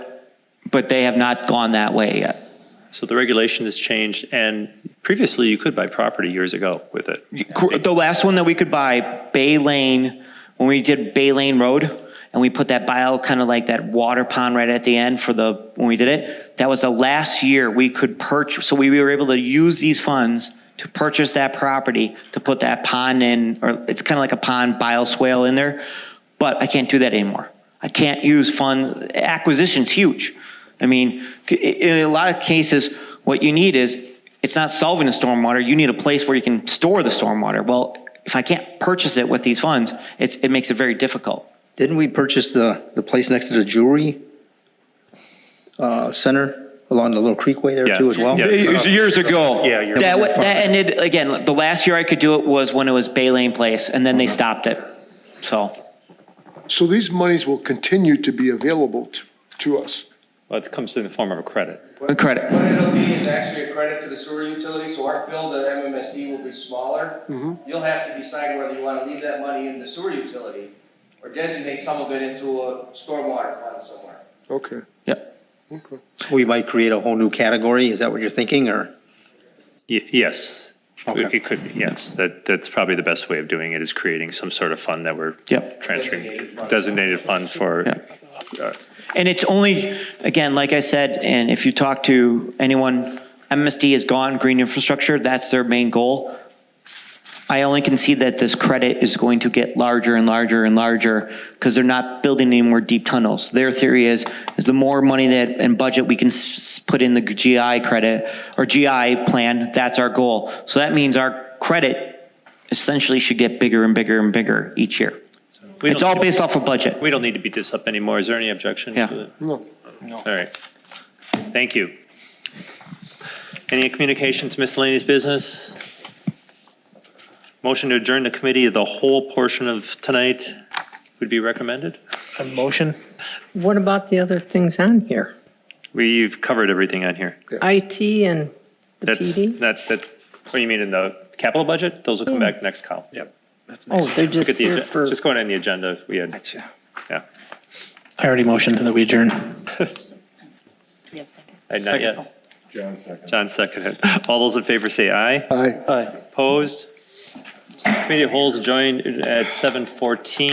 but they have not gone that way yet. So the regulation has changed, and previously you could buy property years ago with it. Cor- The last one that we could buy, Bay Lane, when we did Bay Lane Road, and we put that bio, kind of like that water pond right at the end for the, when we did it, that was the last year we could purchase, so we were able to use these funds to purchase that property, to put that pond in, or it's kind of like a pond bio swale in there, but I can't do that anymore. I can't use fund, acquisition's huge. I mean, c- in a lot of cases, what you need is, it's not solving the stormwater, you need a place where you can store the stormwater. Well, if I can't purchase it with these funds, it's, it makes it very difficult. Didn't we purchase the, the place next to the jewelry uh, center along the little creekway there Yeah. too as well? Yeah. It was years ago. Yeah, years That, wa- that ended, again, the last year I could do it was when it was Bay Lane Place, and then they stopped it. So, So these monies will continue to be available to, to us. Well, it comes in the form of a credit. credit. What it'll be is actually a credit to the sewer utility, so our bill to MMSD will be smaller. You'll have to decide whether you want to leave that money in the sewer utility or designate some of it into a stormwater fund somewhere. Okay. Yep. We might create a whole new category, is that what you're thinking, or? Y- Yes, Okay. it could, yes, that, that's probably the best way of doing it, is creating some sort of fund that we're Yep. transferring, designated fund for. uh, And it's only, again, like I said, and if you talk to anyone, MSD is gone, green infrastructure, that's their main goal. I only can see that this credit is going to get larger and larger and larger because they're not building any more deep tunnels. Their theory is, is the more money that, and budget we can s- s- put in the GI credit or GI plan, that's our goal. So that means our credit essentially should get bigger and bigger and bigger each year. we It's don't all need- based off of budget. We don't need to beat this up anymore. Is there any objection? Yeah. to it? No. All right. Thank you. Any communications, miscellaneous business? Motion to adjourn the committee, the whole portion of tonight would be recommended? What about the other things on here? We've covered everything on here. IT and the That's, PD? that, that, what do you mean in the capital budget? Those will come back next call. Yep. Oh, they're Look just at the, here agen- for, just going on the agenda, we had, yeah. I already motioned that we adjourn. Uh, Not yet. John seconded. All those in favor say aye. Aye. Opposed? Committee holds joined at 7:14.